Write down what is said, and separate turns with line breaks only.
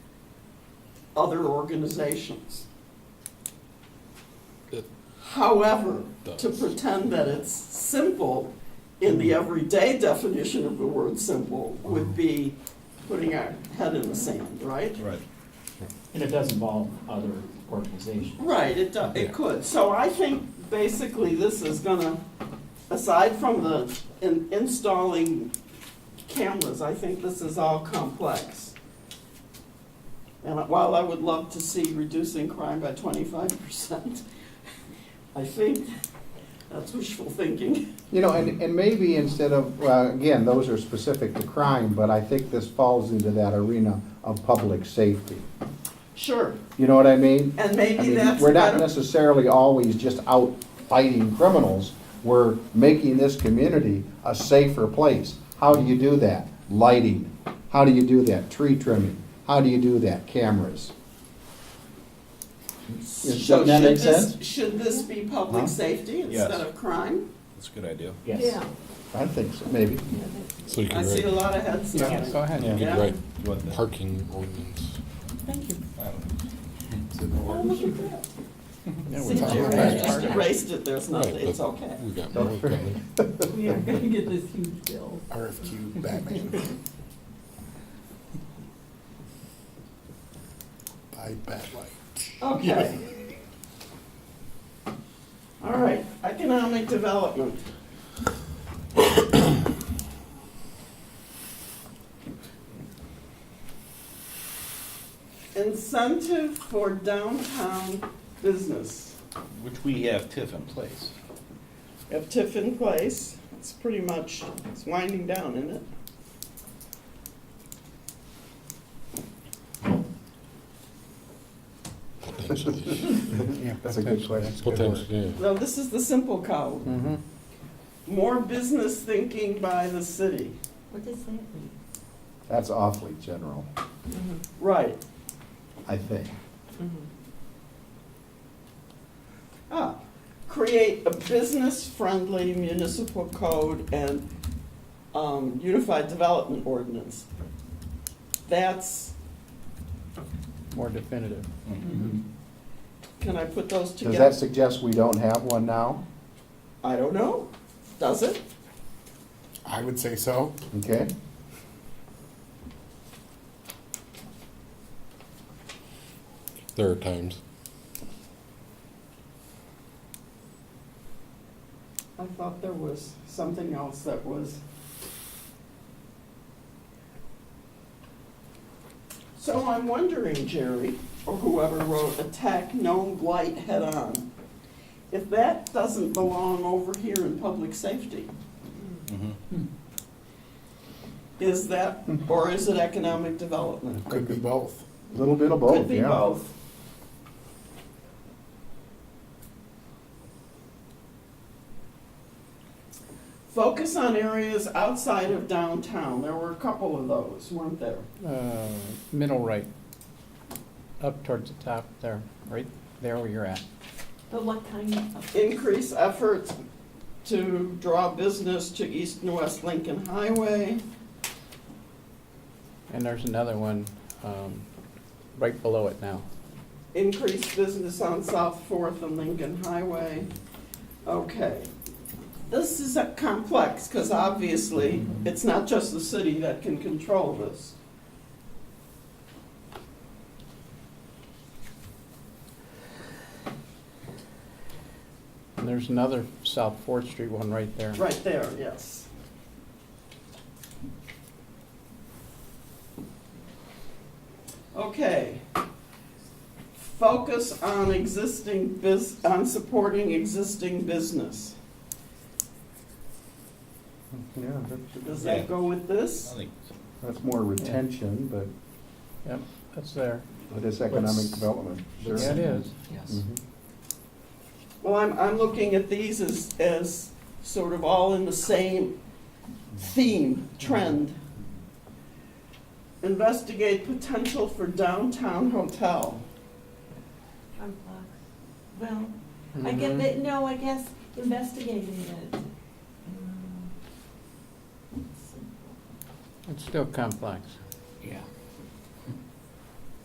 other organizations.
It-
However, to
Does.
pretend that it's simple in the everyday definition of the word simple would be putting our head in the sand, right?
Right.
And it does involve other organizations.
Right, it, do- it could. So I think basically this is gonna, aside from the in- installing cameras, I think this is all complex. And while I would love to see reducing crime by twenty-five percent, I think that's wishful thinking.
You know, and, and maybe instead of, well, again, those are specific to crime, but I think this falls into that arena of public safety.
Sure,
You know what I mean?
and
I
maybe
mean,
that's
We're not
better-
necessarily always just out fighting criminals. We're making this community a safer place. How do you do that? Lighting. How do you do that? Tree trimming. How do you do that? Cameras. Does
So
that
should
make
this-
sense?
Should this be public
Huh?
safety
Yes.
instead of crime?
That's a good idea.
Yes.
I think so, maybe.
So you
I
can
see a
write,
lot of heads nodding.
ahead.
you
Yeah.
can write
You want that?
parking ordinance.
Thank you.
I don't know.
Oh, look at that. See,
talking
Jerry,
about
I just erased it, there's nothing,
Right,
it's
but
okay.
We got
Don't
more
worry.
coming.
We are gonna get this huge bill.
RFQ Batman. By Batlight.
Okay. All right, economic development. Incentive for downtown business.
Which we have TIF in place.
We have TIF in place, it's pretty much, it's winding down, isn't it?
Potentially,
That's a good question.
potentially, yeah.
No, this is the simple code.
Mhm.
More business thinking by the city.
What does that mean?
That's awfully general,
Uh-huh.
Right.
I think.
Mm-hmm. Ah, create a business-friendly municipal code and um, unified development ordinance. That's,
More definitive.
can I put those
Does that
together?
suggest we don't have one now?
I don't know. Does it?
I would say so.
Okay?
There are times.
I thought there was something else that was. So I'm wondering, Jerry, or whoever wrote attack known blight head on, if that doesn't belong over here in public safety,
Mhm.
is that, or is it economic development?
Could be both.
A Little bit of
Could
both,
be
yeah.
both. Focus on areas outside of downtown. There were a couple of those, weren't there?
Uh, middle right, up towards the top there, right there where you're at.
But what kind of?
Increase efforts to draw business to East and West Lincoln Highway.
And there's another one, um, right below it now.
Increase business on South Fourth and Lincoln Highway. Okay. This is a complex, because obviously, it's not just the city that can control this.
And there's another South Fourth Street one right there.
Right there, yes. Okay. Focus on existing bus, on supporting existing business.
Yeah, that-
Does that go with
I
this?
think
that's more retention, but,
Yep, that's there.
but it's economic
Let's-
development. Sure.
Yeah, it is.
Yes.
Mhm.
Well, I'm, I'm looking at these as, as sort of all in the same theme, trend. Investigate potential for downtown hotel.
Hard luck. Well, I get that, no, I guess investigating it. um,
It's still complex.
Yeah.